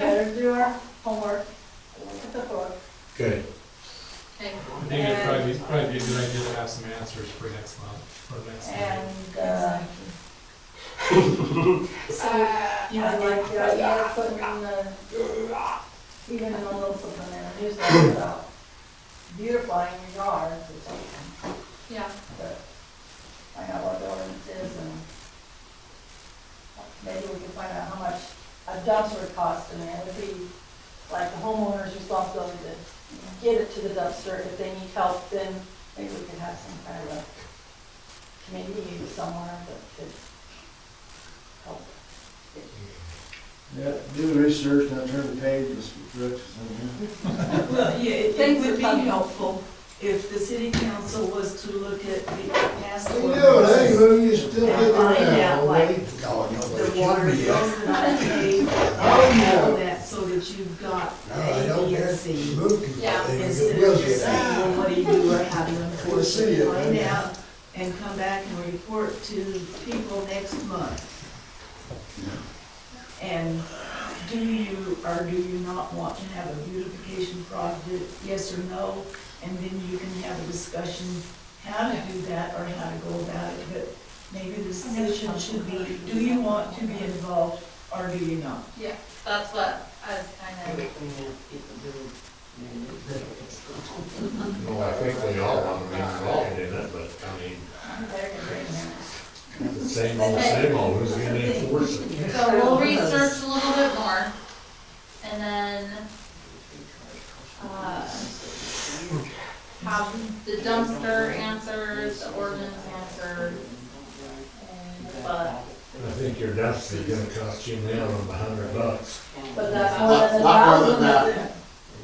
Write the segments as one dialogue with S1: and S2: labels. S1: your homework, look at the book,
S2: Good.
S1: okay?
S3: I think it'd probably, be- probably be a good idea to have some answers for next month, or next time.
S1: And, uh, so,
S4: Uh,
S1: you know, like the idea of putting the, even a little something in the newsletter about beautifying your yards or something,
S4: Yeah,
S1: but find out what the ordinance is and maybe we can find out how much a dumpster costs and it would be like the homeowner's responsibility to get it to the dumpster. If they need help, then maybe we could have some kind of a committee somewhere that could help.
S5: Yeah, do the research, now turn the page, Mr. Brooks, and,
S6: Well, yeah, it- it
S1: Things
S6: would
S1: are
S6: be
S1: coming.
S6: helpful if the city council was to look at the past
S5: yeah. Yeah, hey,
S6: ordinances.
S5: well, eh? you still
S6: Yeah,
S5: get
S6: find
S5: around,
S6: out, like,
S5: buddy. God,
S6: The
S5: nobody
S6: water
S5: should be. uh,
S6: bills that I paid, all of that, so that you've got
S5: No, I
S6: A,
S5: don't
S6: B, and
S5: care.
S6: C.
S5: Move people,
S4: Yeah.
S5: they can
S6: Instead
S5: get
S6: of
S5: wills
S6: just saying,
S5: yet.
S6: well, what do you do, or how do you enforce
S5: see
S6: it,
S5: it,
S6: find
S5: yeah.
S6: out, and come back and report to people next month. And do you, or do you not want to have a beautification project, yes or no? And then you can have a discussion how to do that or how to go about it, but maybe the decision should be, do you want to be involved or do you not?
S4: yeah, that's what I was kind of,
S2: Well, I think we all want to be involved in it, but I mean, it's the same old, same old, who's gonna enforce it?
S4: so we'll research a little bit more, and then, uh, have the dumpster answered, the ordinance answered, and, uh, but,
S2: I think your dumpster's gonna cost you now a hundred bucks.
S1: But that's more than a
S5: Lot more than
S1: thousand that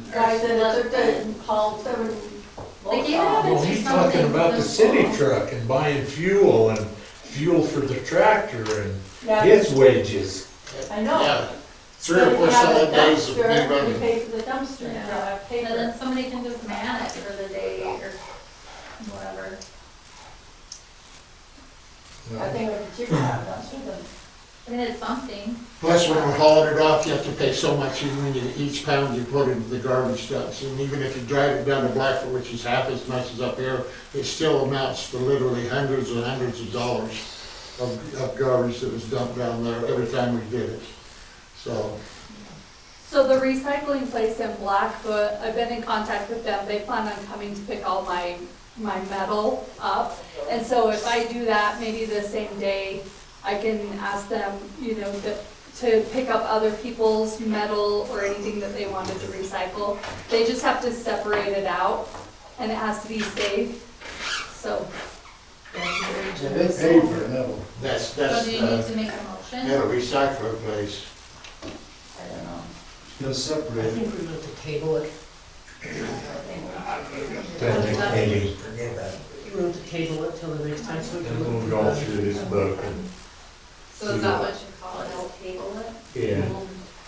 S1: the guy said it took to haul seven.
S4: They gave
S1: loads
S4: it up.
S1: off.
S2: Well, he's talking about the city truck and buying fuel and fuel for the tractor and
S1: Yeah,
S2: his wages.
S1: I know.
S7: Three or
S1: But if
S7: four
S1: you have a
S7: solid days of me
S1: dumpster, You
S7: running.
S1: pay for the dumpster, you
S4: Yeah.
S1: have
S4: and
S1: paper.
S4: then somebody can just man it for the day or whatever.
S1: I think it would be cheaper to have a dumpster than
S4: I mean, it's something,
S7: Plus, when we're hauling it off, you have to pay so much when you, each pound you put into the garbage dumps. And even if you drive it down to Blackfoot, which is half as much as up here, it still amounts to literally hundreds and hundreds of dollars of, of garbage that was dumped down there every time we did it. So,
S8: So the recycling place in Blackfoot, I've been in contact with them, they plan on coming to pick all my, my metal up. And so if I do that, maybe the same day, I can ask them, you know, to, to pick up other people's metal or anything that they wanted to recycle. They just have to separate it out, and it has to be safe, so.
S6: That's very
S5: Yeah, they
S6: generous.
S5: pay for it, no.
S7: that's,
S4: so
S7: that's,
S4: do you need
S7: uh,
S4: to make a motion?
S7: yeah, recycling place.
S1: I don't know.
S5: They'll separate it.
S6: think we need to table it.
S2: Doesn't make any-
S6: We need to table it till the next time, so
S2: And we'll go through this book and,
S4: So is that what you call it, a table it?
S2: yeah,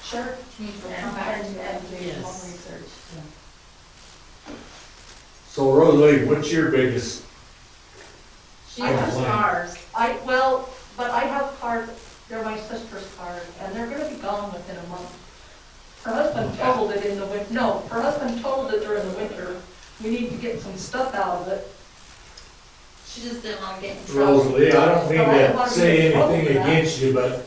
S1: Sure.
S4: Need to come
S1: Come
S4: back
S1: back
S4: to
S1: and
S4: that.
S1: do your
S6: Yes.
S1: own research.
S2: So Rosalie, what's your biggest,
S1: She
S2: I
S1: has
S2: don't like-
S1: cars. I, well, but I have cars, they're my sister's cars, and they're gonna be gone within a month. Her husband totaled it in the win, no, her husband totaled it during the winter. We need to get some stuff out of it.
S4: She just didn't want to get in trouble.
S2: Rosalie, I don't mean to say anything against you, but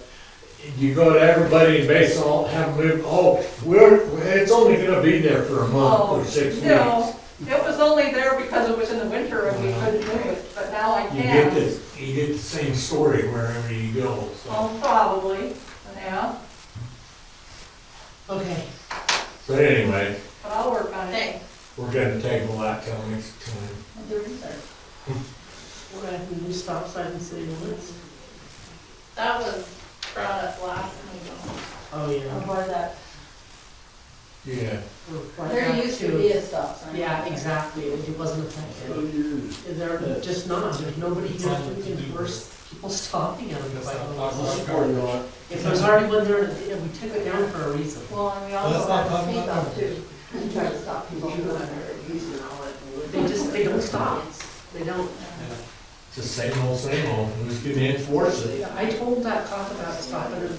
S2: you go to everybody and base all, have them move, oh, we're, it's only gonna be there for a month or six weeks.
S1: No, it was only there because it was in the winter and we couldn't do it, but now I
S2: You get
S1: can.
S2: this, you get the same story wherever you go, so.
S1: Well, Oh, probably, yeah,
S6: Okay.
S2: But anyway,
S1: but I'll work on it.
S4: Okay,
S2: we're gonna table that till next time.
S1: and Do research.
S6: We're gonna have to do stop sign and city limits.
S4: that was brought up last meeting.
S6: Oh, yeah.
S1: Avoid that.
S2: Yeah,
S1: There used to be a stop sign.
S9: Yeah, exactly, it wasn't effective. They're just not, there's nobody here to enforce people stopping at them. by the law.
S5: Or not.
S9: If there's already one there, you know, we took it down for a reason.
S1: Well, and we
S3: Let's
S1: also
S3: not
S1: have
S3: talk
S1: a speed
S3: about
S1: bump too, to try to stop people from doing it.
S9: They just, they don't stop, they don't.
S2: it's the same old, same old, who's gonna enforce it?
S9: I told that cop about stopping at the